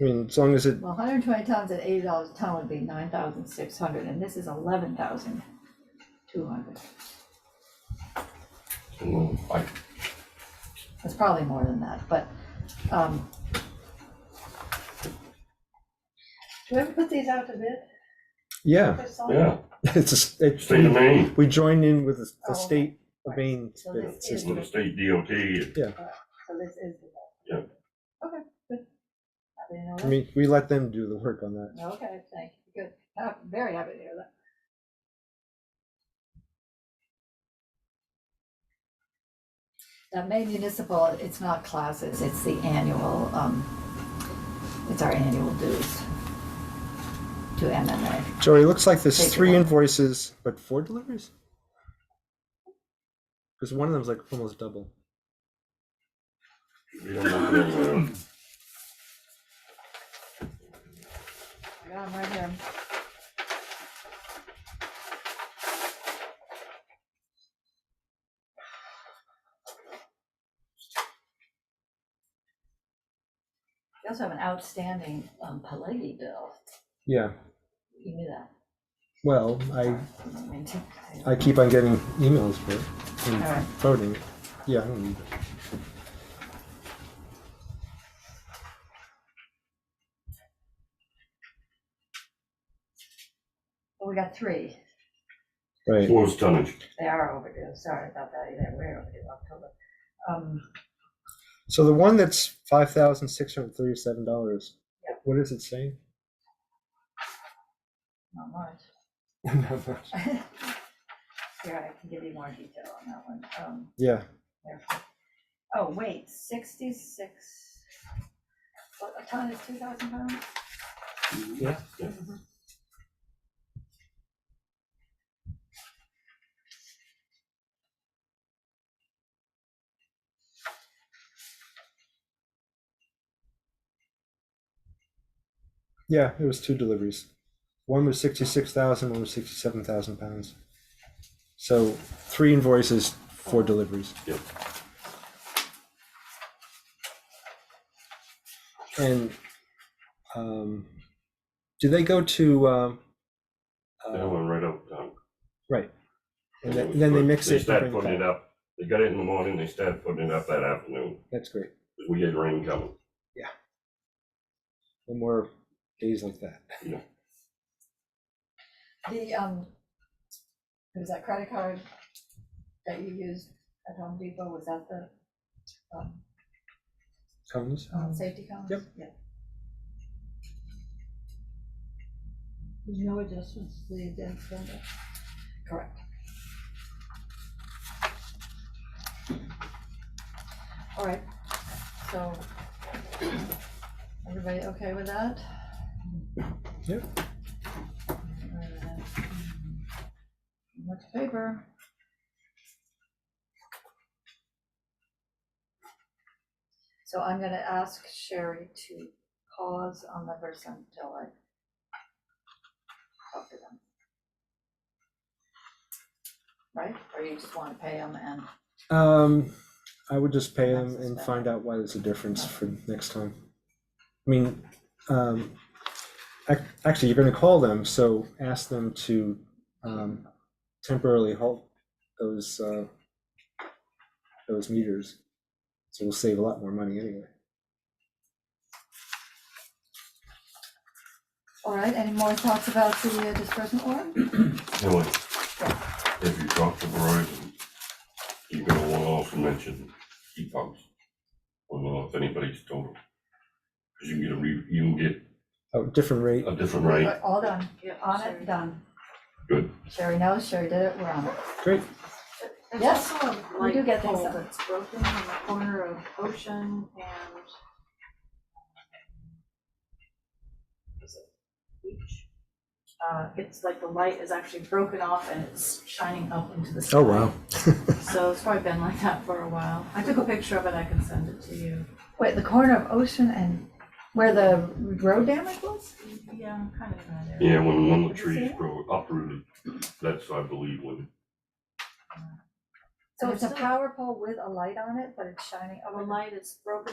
I mean, as long as it, Well, hundred and twenty tons at eighty dollars a ton would be nine thousand six hundred, and this is eleven thousand two hundred. Well, I, It's probably more than that, but, um, Do we ever put these out to bid? yeah, Chris, on- yeah, it's just, it's, state of Maine, we join in with the- Oh, the okay. state of Maine So bid this is- system. with the state DOT, and so this is the. Yeah. Okay, good. I didn't know I mean, we let them do the work on that. that. Okay, thank you, good, I'm very happy to hear that. Now, Maine Municipal, it's not classes, it's the annual, um, it's our annual dues to MMA. Joey, it looks like there's Take it three on. invoices, but four deliveries? Because one of them's like almost double. we don't want to, uh, I got 'em right here. We also have an outstanding um, Pelagi bill. Yeah, You knew that. well, I, I didn't mean to. I keep on getting emails for it All and right. voting. Yeah, I don't need it. Well, we got three. Right. force tonnage. They are overdue. Sorry about that. They're way overdue, October. Um, So the one that's five thousand six hundred thirty-seven dollars. What does it say? Not much. Here, I can give you more detail on that one. Um, yeah, Therefore- Oh, wait, sixty-six, what, a ton is two thousand pounds? Yeah. Yeah. Mhm. yeah. It was two deliveries. One was sixty-six thousand. One was sixty-seven thousand pounds. So three invoices, four deliveries. Yep. And um, do they go to? Um, That uh, went right out of town. right. And then, then they mix They it. and start bring it putting it back. up, they got it in the morning, they started putting it up that afternoon, That's great. we had rain coming. No more days like that. The, um, it was that credit card that you used at Home Depot, was that the, um, Comes. um, safety cones? Yep. Yeah. There's no adjustments to the agenda. Correct. All right, so, everybody okay with that? Yeah. Much paper. So I'm gonna ask Sherry to pause on the verse until I talk to them. Right, or you just wanna pay them and, Um, I would just pay them That's and bad. find out why there's a difference for next time. I mean, um, ac- actually, you're gonna call them, so ask them to, um, temporarily halt those, uh, those meters. So we'll save a lot more money anyway. all right, any more thoughts about the uh, disbursement warrant? Anyway, if you talk to Verizon, you're gonna want to also mention heat pumps. I don't know if anybody's told them. Cause you can get a re, you can get Oh, different rate. a different rate, All done, on it, done. good. Sherry knows, Sherry did it, we're on it. Great. There's Yes, also a we do light get things pole done. that's broken in the corner of Ocean and. Is it Beach? Uh, it's like the light is actually broken off and it's shining up into the sky. Oh, wow. So it's probably been like that for a while. I took a picture of it, I can send it to you. Wait, the corner of Ocean and where the road damage was? Yeah, kind of in that area. Yeah, when one of the Did you see trees it? grow uprooted, that's, I believe, when, So it's a Understood. power pole with a light on it, but it's shining, oh, The light is broken